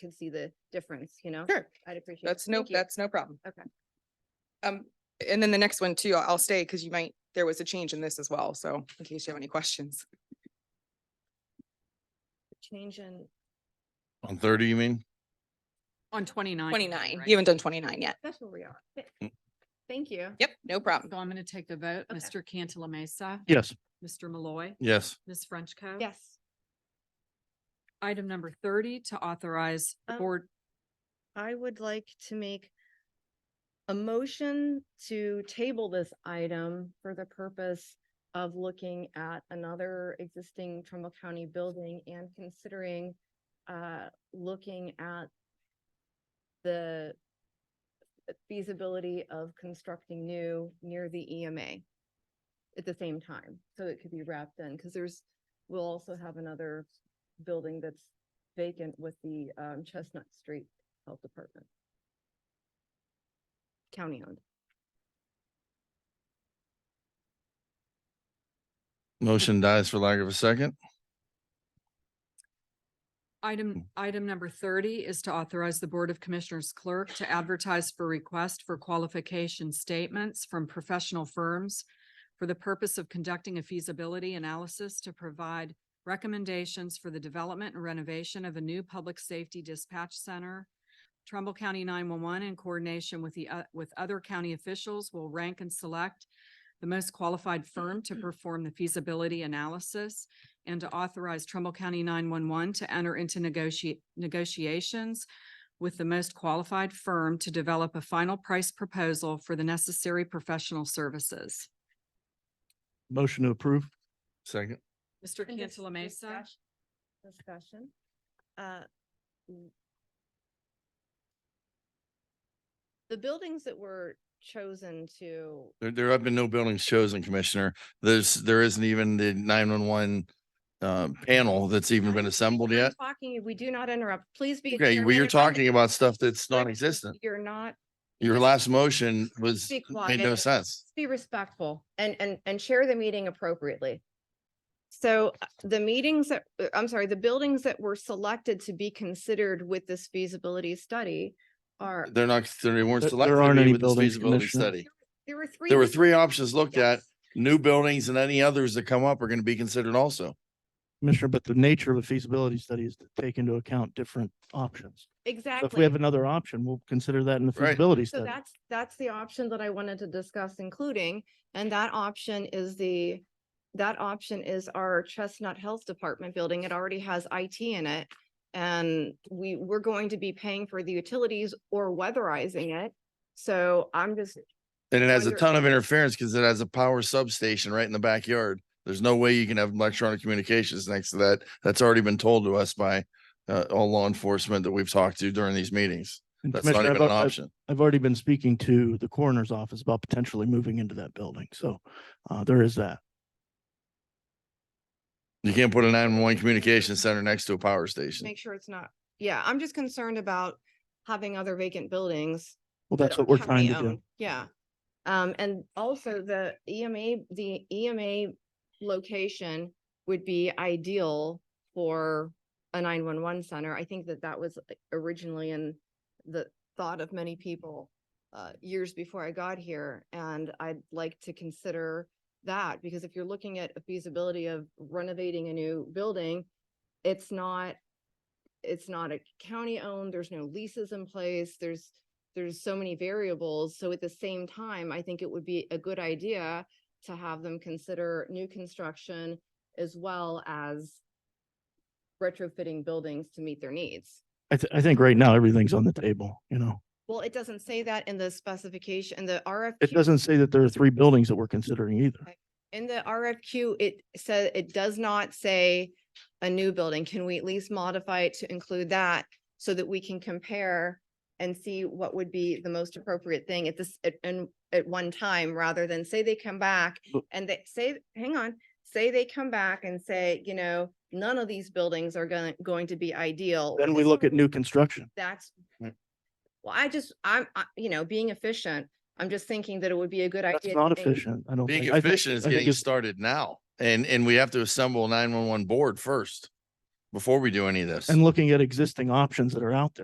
can see the difference, you know? Sure. I'd appreciate it. That's no, Thank you. that's no problem. Okay. Um, and then the next one too, I'll stay because you might, there was a change in this as well. So in case you have any questions. Change in, On thirty, you mean? On twenty-nine. you're doing, Twenty-nine, right? you haven't done twenty-nine yet. that's where we are. Th- Mm. Thank you. Yep, no problem. So I'm going to take the vote. Okay. Mr. Cantala Mesa, Yes. Mr. Malloy, Yes. Ms. Frenchco. Yes. Item number thirty to authorize the Um, board, I would like to make a motion to table this item for the purpose of looking at another existing Trumbull County building and considering uh, looking at the feasibility of constructing new near the EMA at the same time, so it could be wrapped in, because there's, we'll also have another building that's vacant with the um, Chestnut Street Health Department. County owned. Motion dies for lack of a second. item, item number thirty is to authorize the Board of Commissioners clerk to advertise for request for qualification statements from professional firms for the purpose of conducting a feasibility analysis to provide recommendations for the development and renovation of a new public safety dispatch center. Trumbull County nine-one-one in coordination with the, o- with other county officials will rank and select the most qualified firm to perform the feasibility analysis and to authorize Trumbull County nine-one-one to enter into negotiate, negotiations with the most qualified firm to develop a final price proposal for the necessary professional services. Motion to approve. Second. Mr. Cantala Mesa. Discuss- Discussion. Uh, w- The buildings that were chosen to, There, there have been no buildings chosen, Commissioner. There's, there isn't even the nine-one-one uh, panel that's even been assembled yet. talking, if we do not interrupt, please be. Okay, well, we you're talking about stuff that's non-existent. You're not, Your last motion was, Be made no quiet. sense. be respectful and, and, and share the meeting appropriately. So uh, the meetings that, uh, I'm sorry, the buildings that were selected to be considered with this feasibility study are. They're not, they weren't There- selected there aren't any with this buildings, feasibility Commissioner. study. There were three. There were different- three options looked at. Yes. New buildings and any others that come up are going to be considered also. Commissioner, but the nature of a feasibility study is to take into account different options. So Exactly. if we have another option, we'll consider that in the Right. feasibility So study. that's, that's the option that I wanted to discuss including, and that option is the, that option is our Chestnut Health Department building. It already has IT in it. And we, we're going to be paying for the utilities or weatherizing it. So I'm just, And it has a Under- ton of interference because it has a power substation right in the backyard. There's no way you can have electronic communications next to that. That's already been told to us by uh, all law enforcement that we've talked to during these meetings. And That's not Commissioner, uh, even I've an al- I've- option. I've already been speaking to the coroner's office about potentially moving into that building. So uh, there is that. You can't put a nine-one-one communication center next to a power station. make sure it's not, yeah, I'm just concerned about having other vacant buildings. Well, that that's what are we're trying to do. county-owned. Yeah. Um, and also the EMA, the EMA location would be ideal for a nine-one-one center. I think that that was originally in the thought of many people uh, years before I got here, and I'd like to consider that, because if you're looking at a feasibility of renovating a new building, it's not, it's not a county-owned, there's no leases in place, there's, there's so many variables. So at the same time, I think it would be a good idea to have them consider new construction as well as retrofitting buildings to meet their needs. I, th- I think right now everything's on the table, you know. Well, it doesn't say that in the specification, in the RFQ. It doesn't say that there are three buildings that we're considering either. In the RFQ, it said, it does not say a new building. Can we at least modify it to include that so that we can compare and see what would be the most appropriate thing at this, at, and at one time, rather than say they come back But- and they say, hang on, say they come back and say, you know, none of these buildings are going, going to be ideal. Then we look at new Hmm. construction. That's, Mm. well, I just, I'm, I- you know, being efficient, I'm just thinking that it would be a good idea. to That's not think- efficient. I don't think. Being I think- efficient is I think getting it's- started now. And, and we have to assemble a nine-one-one board first. before we do any of this. and looking at existing options that are out there.